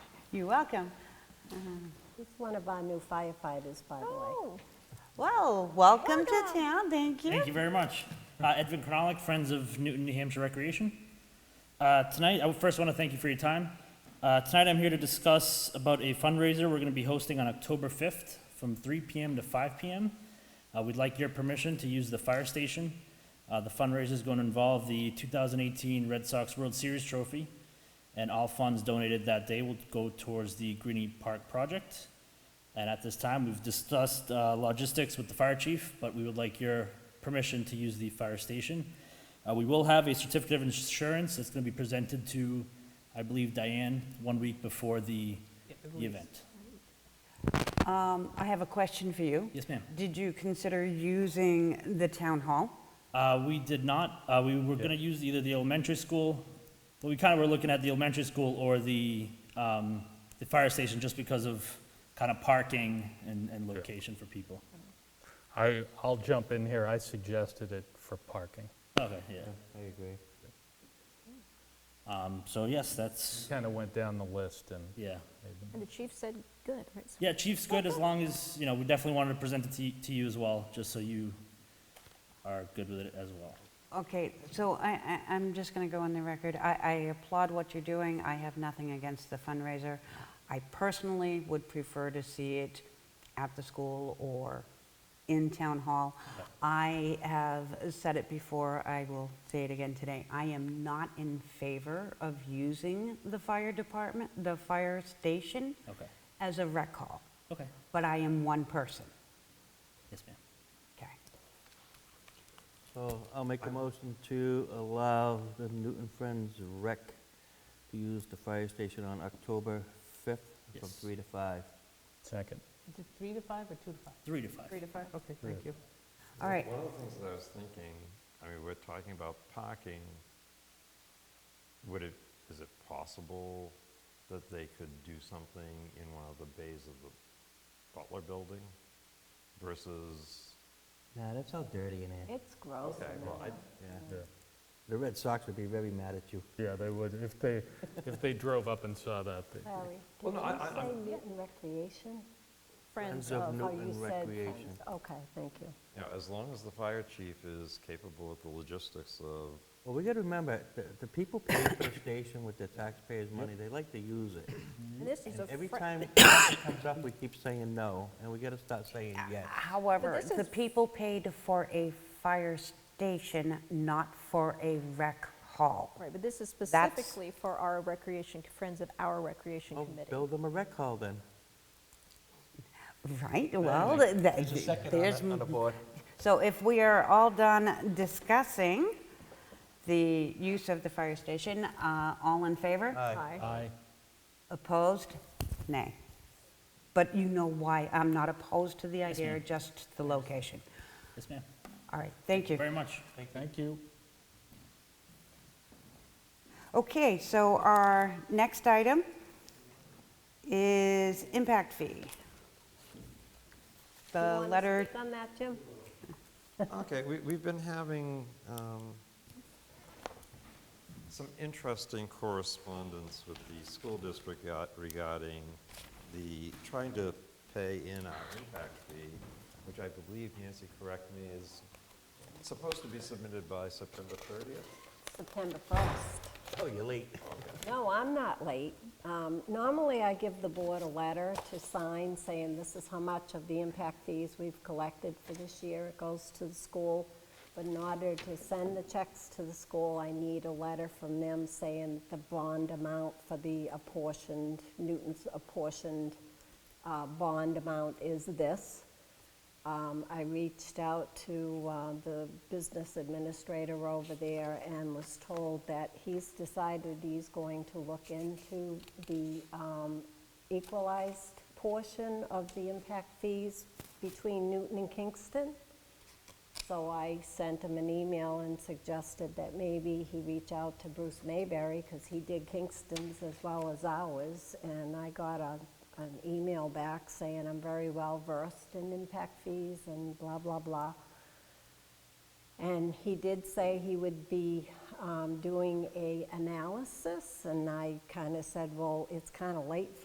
You're welcome. He's one of our new firefighters, by the Oh, way. Well, welcome to town, thank you. Thank you very much. Uh, Edvin Cronalik, Friends of Newton, New Hampshire Recreation. Uh, Tonight, I would first want to thank you for your time. Uh, Tonight, I'm here to discuss about a fundraiser we're going to be hosting on October 5th from 3 PM to 5 PM. Uh, We'd like your permission to use the fire station. Uh, The fundraiser is going to involve the 2018 Red Sox World Series trophy, and all funds donated that day will go towards the Greenie Park project. And at this time, we've discussed uh, logistics with the fire chief, but we would like your permission to use the fire station. Uh, We will have a certificate of insurance that's going to be presented to, I believe, Diane, one week before the the event. Um, I have a question for you. Yes, ma'am. Did you consider using the town hall? Uh, We did not, uh, we were going to use either the elementary school, but we kind of were looking at the elementary school or the, um, the fire station just because of kind of parking and, and location for people. I, I'll jump in here. I suggested it for parking. Okay, yeah. I agree. Um, So yes, that's, Kind of went down the list and yeah. And the chief said, good, right? so- Yeah, Chief's good as long as, you know, we definitely wanted to present it to, y- to you as well, just so you are good with it as well. Okay, so I, I- I'm just going to go on the record. I I applaud what you're doing. I have nothing against the fundraiser. I personally would prefer to see it at the school or in Town Hall. I have said it before, I will say it again today. I am not in favor of using the fire department, the fire station, Okay. as a rec hall, Okay. but I am one person. Yes, ma'am. Okay. So I'll make a motion to allow the Newton Friends Rec to use the fire station on October 5th from Yes. 3 to 5. second. Is it three to five or two to five? Three to five. Three to five? Okay, thank you. All right. One of the things that I was thinking, I mean, we're talking about parking. Would it, is it possible that they could do something in one of the bays of the Butler Building versus, Nah, that's all dirty in there. It's gross. okay, well, I, Yeah. The Red Sox would be very mad at you. Yeah, they would, if they, if they drove up and saw that. they- Larry, Well, did no, I- I- you say I'm- Newton Recreation? Friends of Oh, you Newton said Recreation. friends. Okay, thank you. you know, as long as the fire chief is capable of the logistics of, Well, we got to remember, the, the people pay for the station with their taxpayers' money. They like to use it. And this is a, And every fri- time it comes up, we keep saying no, and we got to start saying yes. However, this the is- people paid for a fire station, not for a rec hall. right, but this is That's- specifically for our recreation, friends of our recreation Well, committee. Oh, build them a rec hall then. Right, well, th- th- there's, on the board. so if we are all done discussing the use of the fire station, uh, all in favor? Aye. Aye. Opposed? Nay. But you know why I'm not opposed to the Yes, idea, ma'am. just the location. Yes, ma'am. All right, thank you. Very much. Thank you. Okay, so our next item is impact fee. Do you The wanna letter, speak on that, Jim? Okay, we, we've been having um, some interesting correspondence with the school district got- regarding the, trying to pay in our impact fee, which I believe, Nancy, correct me, is supposed to be submitted by September 30th? September 1st. Oh, you're late. No, I'm not late. Um, Normally, I give the board a letter to sign saying this is how much of the impact fees we've collected for this year. It goes to the school, but in order to send the checks to the school, I need a letter from them saying the bond amount for the apportioned, Newton's apportioned uh, bond amount is this. Um, I reached out to uh, the business administrator over there and was told that he's decided he's going to look into the um, equalized portion of the impact fees between Newton and Kingston. So I sent him an email and suggested that maybe he reach out to Bruce Mayberry, because he did Kingston's as well as ours. And I got a, an email back saying I'm very well versed in impact fees and blah, blah, blah. And he did say he would be um, doing a analysis, and I kind of said, well, it's kind of late